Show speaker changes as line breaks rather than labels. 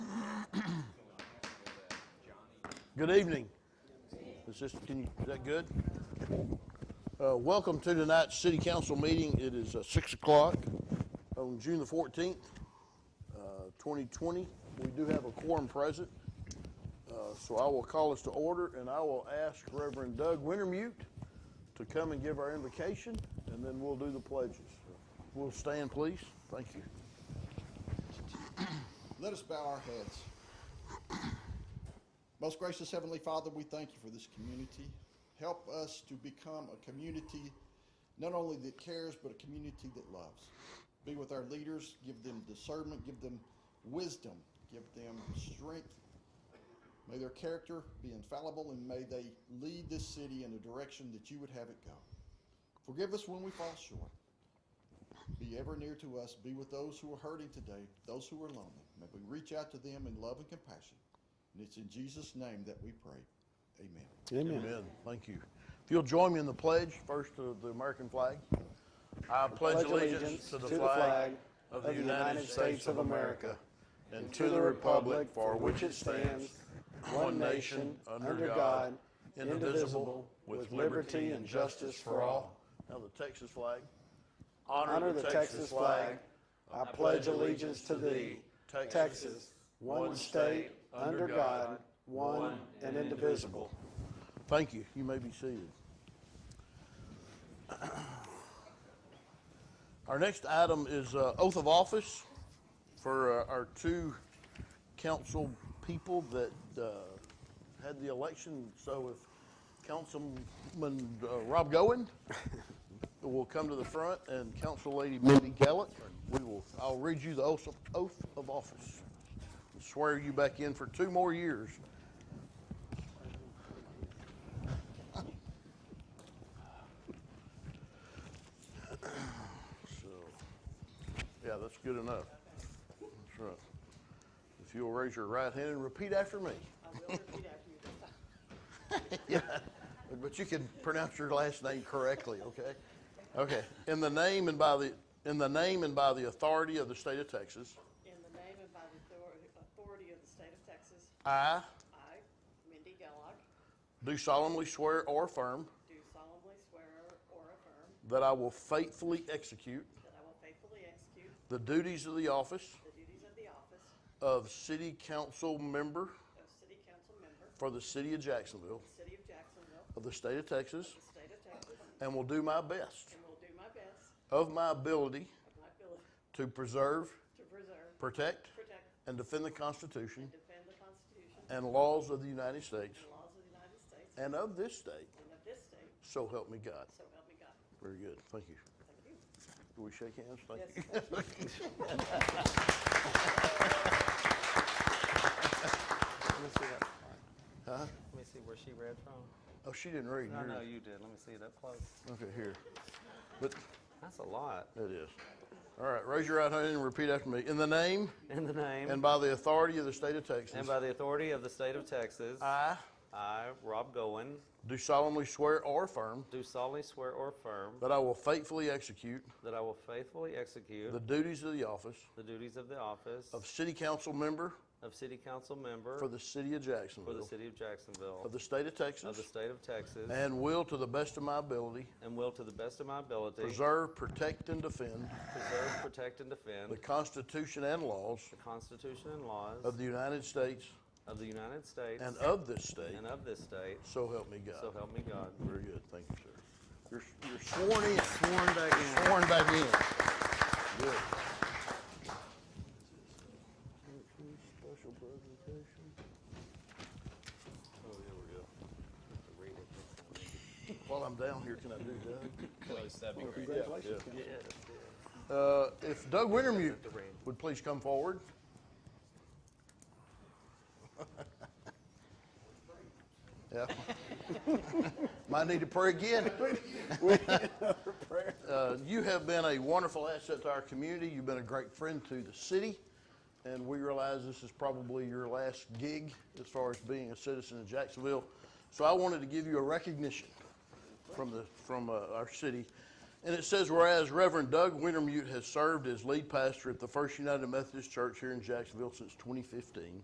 Good evening. Is this, can you, is that good? Uh, welcome to tonight's city council meeting. It is uh, six o'clock on June the fourteenth, uh, twenty twenty. We do have a quorum present. Uh, so I will call us to order and I will ask Reverend Doug Wintermute to come and give our invocation and then we'll do the pledges. We'll stand, please. Thank you.
Let us bow our heads. Most gracious Heavenly Father, we thank you for this community. Help us to become a community not only that cares, but a community that loves. Be with our leaders, give them discernment, give them wisdom, give them strength. May their character be infallible and may they lead this city in the direction that you would have it go. Forgive us when we fall short. Be ever near to us. Be with those who are hurting today, those who are lonely. May we reach out to them in love and compassion. And it's in Jesus' name that we pray. Amen.
Amen. Thank you. If you'll join me in the pledge, first to the American flag. I pledge allegiance to the flag of the United States of America and to the republic for which it stands, one nation, under God, indivisible, with liberty and justice for all. Now the Texas flag.
Honor the Texas flag. I pledge allegiance to thee, Texas, one state, under God, one and indivisible.
Thank you. You may be seated. Our next item is uh, oath of office for uh, our two council people that uh, had the election. So if Councilman uh, Rob Goen will come to the front and Council Lady Mindy Gallick, we will, I'll read you the oath of- oath of office. and Swear you back in for two more years. So, yeah, that's good enough. That's right. If you'll raise your right hand and repeat after me.
I will repeat after you.
But you can pronounce your last name correctly, okay? Okay. In the name and by the, in the name and by the authority of the state of Texas,
In the name and by the author- authority of the state of Texas,
I
I, Mindy Gallock,
do solemnly swear or affirm
do solemnly swear or affirm
that I will faithfully execute
that I will faithfully execute
the duties of the office
the duties of the office
of city council member
of city council member,
for the city of Jacksonville
city of Jacksonville,
of the state of Texas
the state of Texas,
and will do my best
and will do my best
of my ability
of my ability
to preserve,
to preserve,
protect,
protect,
and defend the Constitution
and defend the Constitution and
and laws of the United States
laws of the United States
and of this state.
and of this state,
So help me God.
so help me God.
Very good. Thank you.
Thank you.
Do we shake hands? Thank
Yes,
you.
thank you.
Let me see that. Let me see where she read from.
Oh, she didn't read.
No,
yours.
no, you did. Let me see it up close.
Okay, here. But
That's a lot.
it is. All right, raise your right hand and repeat after me. In the name
In the name
and by the authority of the state of Texas,
and by the authority of the state of Texas,
I
I, Rob Goen,
do solemnly swear or affirm
do solemnly swear or affirm
that I will faithfully execute
that I will faithfully execute
the duties of the office
the duties of the office
of city council member
of city council member
for the city of
for the
Jacksonville
city of Jacksonville
of the state of
of the
Texas
state of Texas
and will, to the best of my ability,
and will to the best of my ability
preserve, protect, and defend
preserve, protect, and defend
the Constitution and laws
the Constitution and laws
of the United States
of the United States
and of this state.
and of this state.
So help me God.
So help me God.
Very good. Thank you, sir. You're, you're sworn in. Sworn
back in.
Sworn back in. Good. Special presentation. Oh, here we go. While I'm down here, can I do Doug? Congratulations.
Yes.
Uh, if Doug Wintermute would please come forward. Yeah. Might need to pray again. Uh, You have been a wonderful asset to our community. You've been a great friend to the city. And we realize this is probably your last gig as far as being a citizen of Jacksonville. So I wanted to give you a recognition from the, from uh, our city. And it says, whereas Reverend Doug Wintermute has served as lead pastor at the First United Methodist Church here in Jacksonville since 2015,